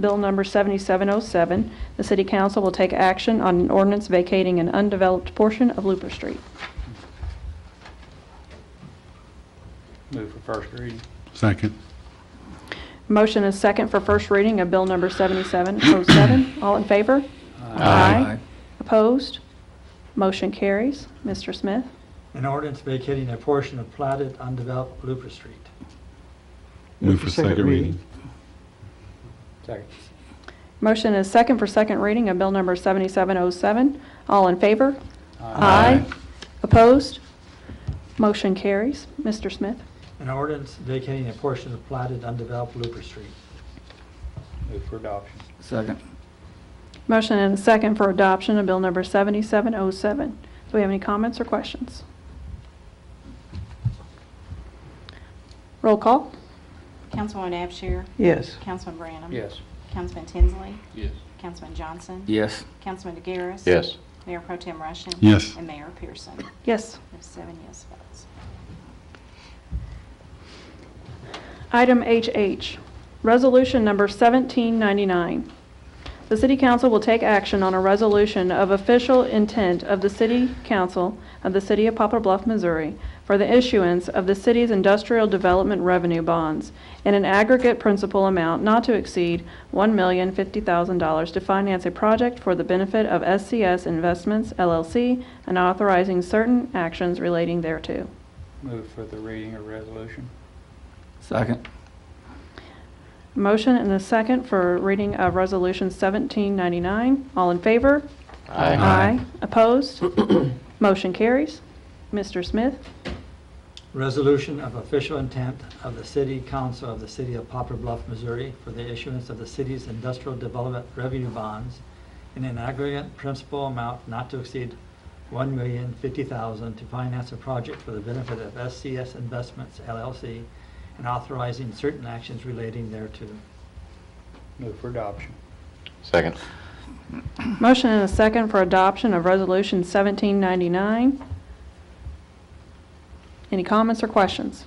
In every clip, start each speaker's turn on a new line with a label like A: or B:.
A: Bill number 7707, the city council will take action on an ordinance vacating an undeveloped portion of Looper Street.
B: Move for first reading.
C: Second.
A: Motion is second for first reading of bill number 7707. All in favor?
C: Aye.
A: Opposed? Motion carries. Mr. Smith?
D: An ordinance vacating a portion of platted undeveloped Blooper Street.
C: Move for second reading.
B: Second.
A: Motion is second for second reading of bill number 7707. All in favor?
B: Uh,
C: Aye.
A: Opposed? Motion carries. Mr. Smith?
D: An ordinance vacating a portion of platted undeveloped Blooper Street.
B: Uh, Move for adoption.
E: Second.
A: Motion and a second for adoption of bill number 7707. Do we have any comments or questions? Roll call?
F: Councilwoman Abshir?
E: Yes.
F: Councilman Branham?
B: Yes.
F: Councilman Tinsley?
B: Yes.
F: Councilman Johnson?
E: Yes.
F: Councilman DeGaris?
G: Yes.
F: Mayor Pro Tem Russian?
C: Yes.
F: And Mayor Pearson. We
A: Yes.
F: have seven yes votes.
A: Item HH, Resolution Number 1799. The City Council will take action on a resolution of official intent of the City Council of the City of Poplar Bluff, Missouri, for the issuance of the city's industrial development revenue bonds in an aggregate principal amount not to exceed $1,050,000 to finance a project for the benefit of SCS Investments LLC and authorizing certain actions relating thereto.
B: Move for the reading of resolution.
E: Second.
A: Motion and a second for reading of Resolution 1799. All in favor?
G: Aye.
E: Aye.
A: Opposed? Motion carries. Mr. Smith?
D: Resolution of official intent of the City Council of the City of Poplar Bluff, Missouri for the issuance of the city's industrial development revenue bonds in an aggregate principal amount not to exceed $1,050,000 to finance a project for the benefit of SCS Investments LLC and authorizing certain actions relating thereto.
B: Move for adoption.
G: Second.
A: Motion and a second for adoption of Resolution 1799. Any comments or questions?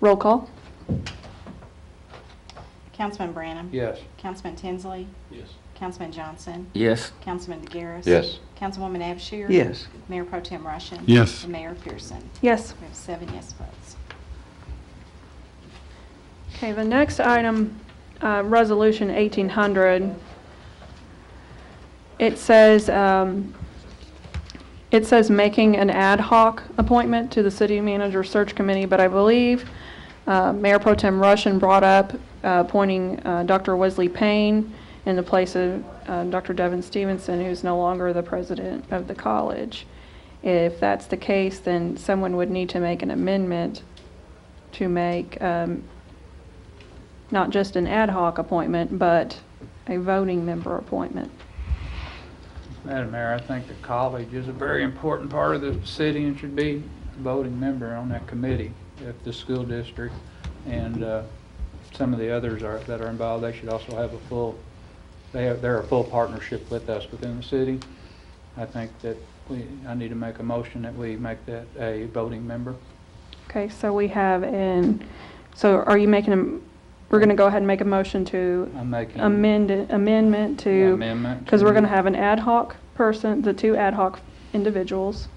A: Roll call?
F: Councilman Branham?
B: Yes.
F: Councilman Tinsley?
B: Yes.
F: Councilman Johnson?
E: Yes.
F: Councilman DeGaris?
G: Yes.
F: Councilwoman Abshir?
E: Yes.
F: Mayor Pro Tem Russian?
C: Yes.
F: And Mayor Pearson.
A: Yes.
F: We have seven yes votes.
A: Okay, the next item, uh, Resolution 1800, it says, um, it says making an ad hoc appointment to the city manager search committee, but I believe uh, Mayor Pro Tem Russian brought up uh, appointing uh, Dr. Wesley Payne in the place of uh, Dr. Devin Stevenson, who's no longer the president of the college. If that's the case, then someone would need to make an amendment to make um, not just an ad hoc appointment, but a voting member appointment.
B: Madam Mayor, I think the college is a very important part of the city and should be a voting member on that committee if the school district and uh, some of the others are, that are involved, they should also have a full, they have, they're a full partnership with us within the city. I think that we, I need to make a motion that we make that a voting member.
A: Okay, so we have an, so are you making, a? we're going to go ahead and make a motion to
B: I'm making.
A: amend, amendment to,
B: Amendment.
A: because we're going to have an ad hoc person, the two ad hoc individuals,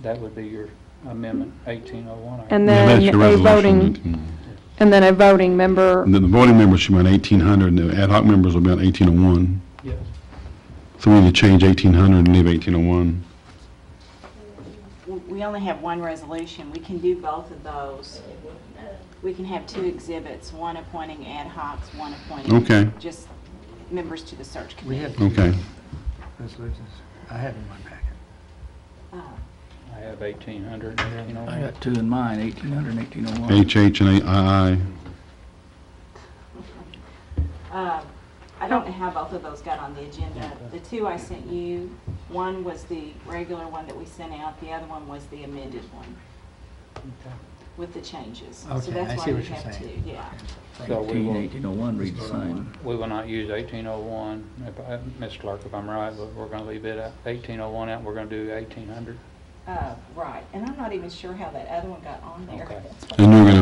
B: That would be your amendment, 1801. I-
A: and
C: Yeah,
A: then
C: that's your
A: a
C: resolution.
A: voting, and then a voting member.
C: And then the voting members should be on 1,800, and the ad hoc members will be on 1,801.
B: Yes.
C: So we need to change 1,800 and leave 1,801.
F: W- We only have one resolution. We can do both of those. We can have two exhibits, one appointing ad hocs, one appointing.
C: Okay.
F: Just members to the search committee.
C: Okay.
D: Resolutions, I have in my packet.
F: Oh,
B: I have 1800, 1801.
E: I got two in mine, 1800 and 1801.
C: HH and II.
F: uh, I don't know how both of those got on the agenda. The two I sent you, one was the regular one that we sent out, the other one was the amended one
B: Okay.
F: with the changes. So
D: Okay, I
F: that's
D: see
F: why we
D: what you're
F: have two,
D: saying.
F: yeah.
B: So we
E: 18,
B: will,
E: 1801 reads oh the same.
B: we will not use 1801, if, I- Ms. Clark, if I'm right, but we're going to leave it at 1801 out, we're going to do 1800.
F: Uh, Right, and I'm not even sure how that other one got on there.
B: Okay.
C: And you're going to